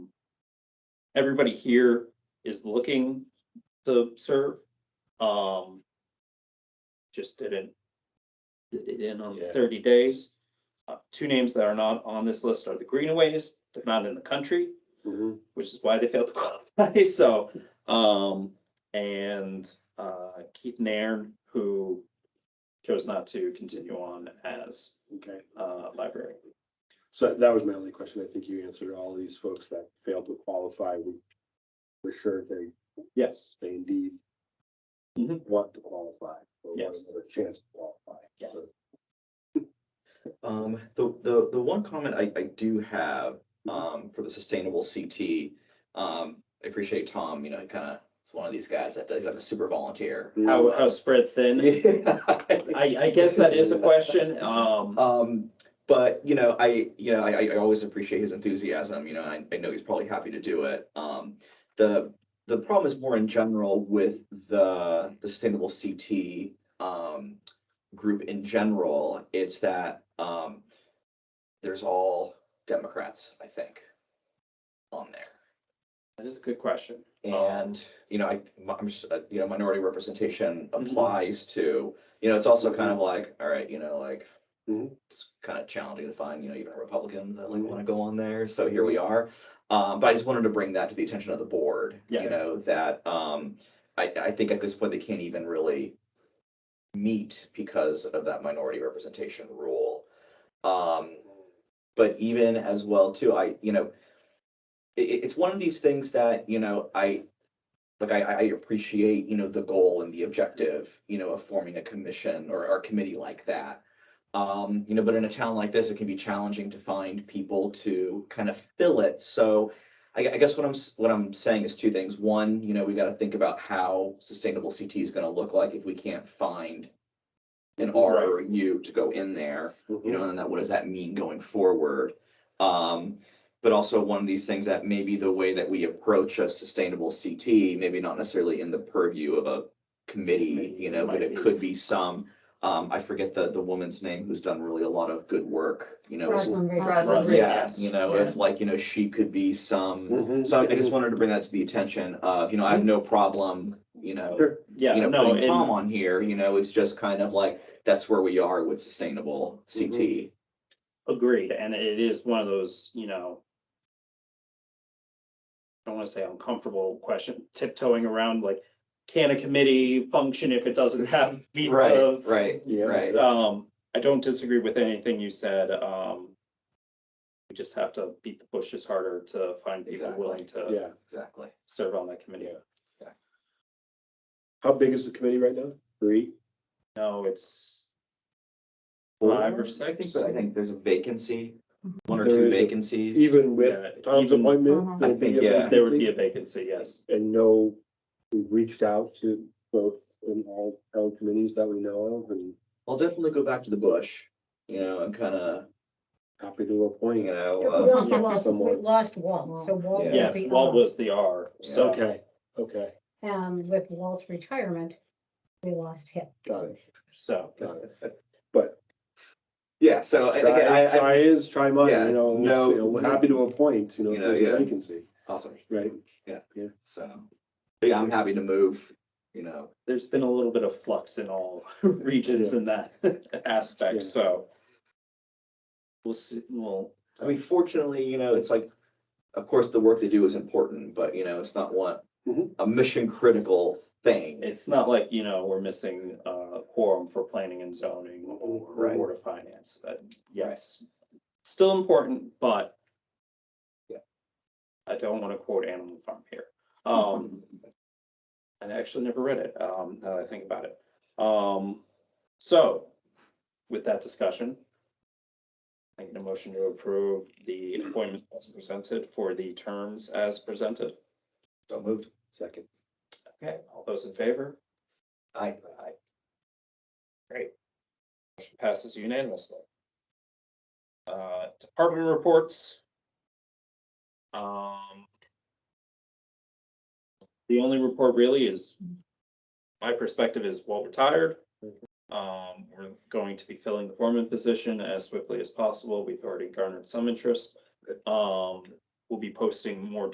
everybody here is looking to serve. Um, just didn't did it in on Yeah. thirty days. Uh, two names that are not on this list are the Greenaways. They're not in the country, which is why they failed to qualify. So, um, and, uh, Keith Nairn, who chose not to continue on as, Okay, uh, library. so that was my only question. I think you answered all of these folks that failed to qualify. We We're sure they, Yes, they indeed Mhm. want to qualify. or want Yes. another Chance to qualify. Yeah. Um, the, the, the one comment I, I do have, um, for the sustainable CT, um, I appreciate Tom, you know, kind of, it's one of these guys that, he's like a super volunteer. how, how spread thin. I, I guess that is a question. Um, Um, but, you know, I, you know, I, I always appreciate his enthusiasm, you know, I, I know he's probably happy to do it. Um, the, the problem is more in general with the, the sustainable CT, um, group in general, it's that, um, there's all Democrats, I think, on there. that is a good question. Um, And, you know, I, I'm, s- uh, you know, minority representation Mhm. applies to, you know, it's Mm-hmm. also kind of like, all right, you know, like. Mhm. It's kind of challenging to find, you know, even Republicans that Mm-hmm. like want to go on there, so here we are. Um, but I just wanted to bring that to the attention of the board, Yeah. you know, that, um, I, I think at this point, they can't even really. Meet because of that minority representation rule. Um, but even as well too, I, you know, it, it- it's one of these things that, you know, I, like, I, I appreciate, you know, the goal and the objective, you know, of forming a commission or, or committee like that. Um, you know, but in a town like this, it can be challenging to find people to kind of fill it. So I, I guess what I'm, s- what I'm saying is two things. One, you know, we got to think about how sustainable CT is going to look like if we can't find an R or a U to go in there mm-hmm. you know, and that, what does that mean going forward? Um, but also one of these things that maybe the way that we approach a sustainable CT, maybe not necessarily in the purview of a committee, you know, but it could be some. Um, I forget the, the woman's name who's done really a lot of good work, you know. is- Rosalind Rick. Rosalind Rick. Yeah, you know, if Yeah. like, you know, she could be some, Mhm. so I I just wanted to bring that to the attention of, you know, I have no problem, you know Sure. Yeah, you know, no, putting Tom and, on here, you know, it's just kind of like, that's where we are with sustainable Mm-hmm. CT. agreed, and it is one of those, you know. I don't wanna say uncomfortable question, tiptoeing around like, can a committee function if it doesn't have? meat of- right, Yeah. Uh, right. Um, I don't disagree with anything you said, um. We just have to beat the bushes harder to find people Exactly. willing to Yeah, Exactly. serve on that committee. how big is the committee right now? Three? No, it's Four? five or I think, six. so. I think there's a vacancy, one or There two is a- vacancies. Even Yeah, with Tom's even- appointment? I there'll think, be a yeah. There would be a vacancy, yes. And no, we reached out to both in all, all committees that we know of and I'll definitely go back to the bush, you know, and kind of, happy to appoint. you know, We uh, also lost, we Someone. lost Walt, so Walt Yeah. was Yes, the. Walt um, was the R, so. Okay, okay, And um, with Walt's retirement, we lost him. got it, So, got it. But yeah, so I- again, try, I, I, try is, try mine, Yeah, you know, no- we'll see. We're happy to appoint, you know, if You know, there's a yeah. vacancy, awesome, right? so, but yeah, I'm happy to move, you know, there's been a little bit of flux in all regions in that Yeah. aspect, so. We'll see, well, I mean, fortunately, you know, it's like, of course, the work they do is important, but you know, it's not one, Mhm. a mission critical thing. it's not like, you know, we're missing uh quorum for planning and zoning or Right. board of finance, but yes. Still important, but. Yeah. I don't want to quote Animal Farm here. Um. And I actually never read it, um, now that I think about it. Um, so with that discussion. I get a motion to approve the appointments as presented for the terms as presented. So moved. Second. Okay, all those in favor? I, Motion passes unanimously. Uh, Department reports. Um, The only report really is, my perspective is well retired. Um, We're going to be filling the foreman position as swiftly as possible. We've already garnered some interest. Um, We'll be posting more